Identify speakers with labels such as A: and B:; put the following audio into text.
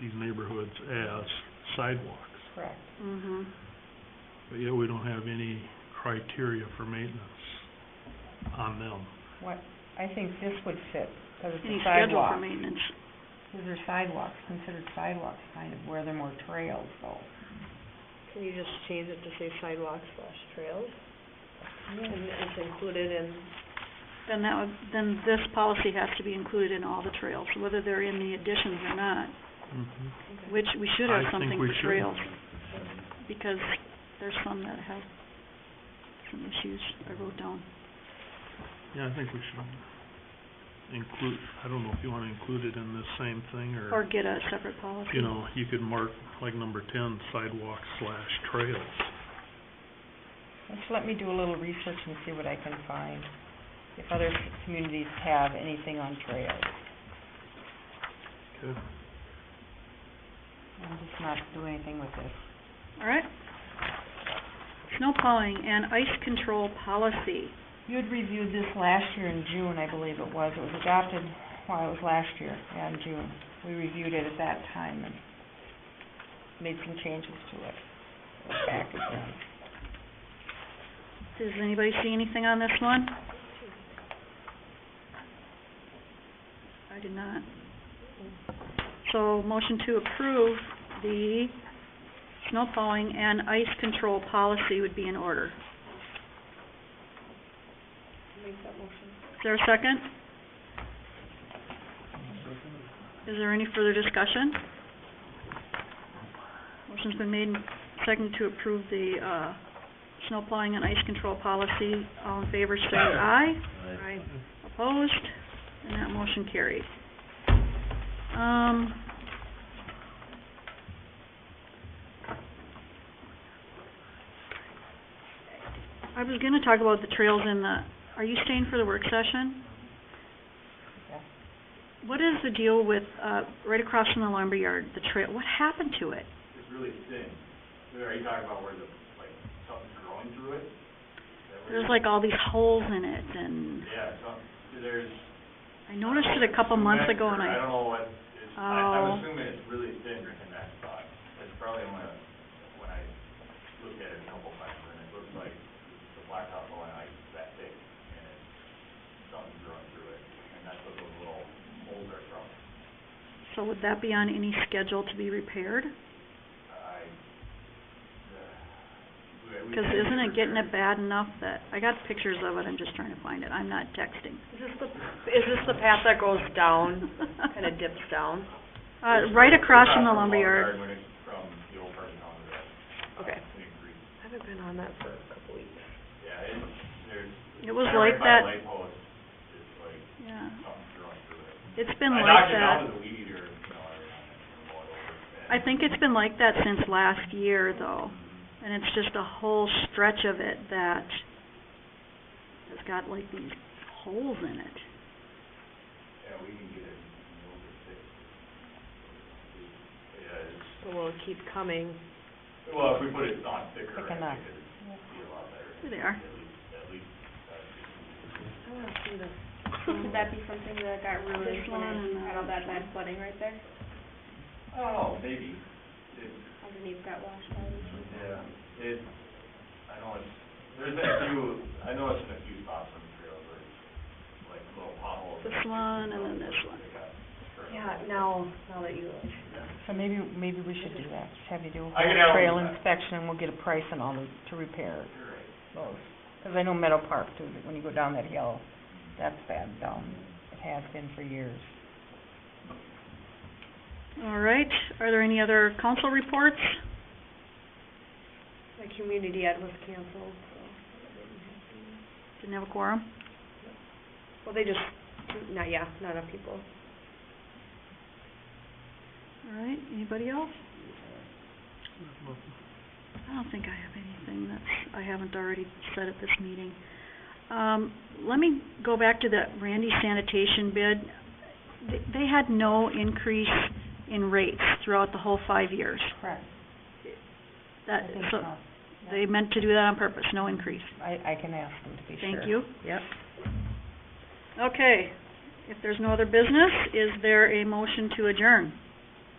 A: these neighborhoods as sidewalks.
B: correct.
C: Mm-hmm.
A: But yet we don't have any criteria for maintenance on them.
B: What, I think this would fit, because
C: Any
B: it's a
C: schedule
B: sidewalk.
C: for maintenance.
B: These are sidewalks, considered sidewalks, kind of, where they're more trails, though.
D: Can you just change it to say sidewalks slash trails? And it's included in,
C: Then that would, then this policy has to be included in all the trails, whether they're in the additions or not,
A: Mhm.
C: which we should have
A: I think
C: something
A: we
C: for
A: should.
C: trails. Because there's some that have some issues I wrote down.
A: Yeah, I think we should include, I don't know if you want to include it in this same thing,
C: Or
A: or,
C: get a separate policy.
A: you know, you could mark, like number ten, sidewalk slash trails.
B: Just let me do a little research and see what I can find, if other communities have anything on trails.
A: Okay.
B: I'm just not doing anything with this.
C: All right. Snow plowing and ice control policy.
B: You had reviewed this last year in June, I believe it was. It was adopted, well, it was last year, yeah, in June. We reviewed it at that time and made some changes to it. It was back again.
C: Does anybody see anything on this one? I did not. So motion to approve the snow plowing and ice control policy would be in order.
D: make that motion.
C: Is there a second? Is there any further discussion? Motion's been made, and seconded to approve the, uh, snow plowing and ice control policy. All in favor, say aye.
D: Right.
C: Opposed? And that motion carried. Um, I was gonna talk about the trails in the, are you staying for the work session?
B: Yes.
C: What is the deal with, uh, right across from the lumberyard, the trail, what happened to it?
E: It's really thin. Are you talking about where the, like, something's growing through it? Is that where
C: There's
E: you're-
C: like all these holes in it and
E: Yeah, some, there's.
C: I noticed it a couple months ago and
E: I
C: I,
E: don't know what, it's, I, I'm
C: Oh.
E: assuming it's really thin in that spot. It's probably when, I- when I looked at it a couple times, and it looks like the blacktop line, like, that thick, and it's, something's growing through it, and that's what those little holes are from.
C: so would that be on any schedule to be repaired?
E: I, uh, we- we
C: Because
E: had
C: isn't it getting
E: surgery.
C: it bad enough that, I got pictures of it, I'm just trying to find it, I'm not texting.
D: Is this the, is this the path that goes down, kinda dips down?
C: Uh, right across from the lumberyard.
E: When it's From the old person on the, uh,
D: Okay.
E: Twin Creek.
D: I haven't been on that for a couple weeks.
E: Yeah, it's, there's.
C: It was
E: kinda
C: like
E: right by
C: that,
E: the light post, it's like
C: yeah,
E: something's growing through it.
C: it's been
E: I
C: like
E: knocked it out
C: that.
E: with a weed eater, you know, and and rolled over it,
C: I
E: and-
C: think it's been like that since last year though, and it's just a whole stretch of it that has got like these holes in it.
E: Yeah, we can get it, you know, over six. Yeah, it's,
D: So will it keep coming?
E: well, if we put it on thicker,
B: Thick
E: I
B: enough.
E: think it'd be a lot better,
C: There they are.
E: at least, at least,
D: I
E: uh,
D: wanna see this.
F: Would that be something that got ruined
C: This
F: when
C: one and
F: it had all
C: that
F: that bad flooding right there?
E: I don't know, Oh, maybe, it,
F: Underneath got washed out and stuff?
E: Yeah, it, I know it's, there's been a few, I know it's been a few spots on the trail where it's like little potholes.
C: This one and then this one.
D: Yeah, now, now that you,
B: So maybe, maybe we should do that, just have you do a
E: I can
B: whole trail
E: help with that.
B: inspection, and we'll get a price on all the, to repair
E: You're right.
B: those. Because I know Meadow Park too, that when you go down that hill, that's bad down, it has been for years.
C: All right, are there any other council reports?
D: my community ad was canceled, so.
C: Didn't have a quorum?
D: Well, they just, not, yeah, not enough people.
C: All right, anybody else? I don't think I have anything that's, I haven't already said at this meeting. Um, let me go back to that Randy sanitation bid. They, they had no increase in rates throughout the whole five years.
B: Correct.
C: That,
B: I think
C: so,
B: so.
C: they meant to do that on purpose, no increase.
B: I, I can ask them to be sure.
C: Thank you.
B: Yep.
C: Okay, if there's no other business, is there a motion to adjourn?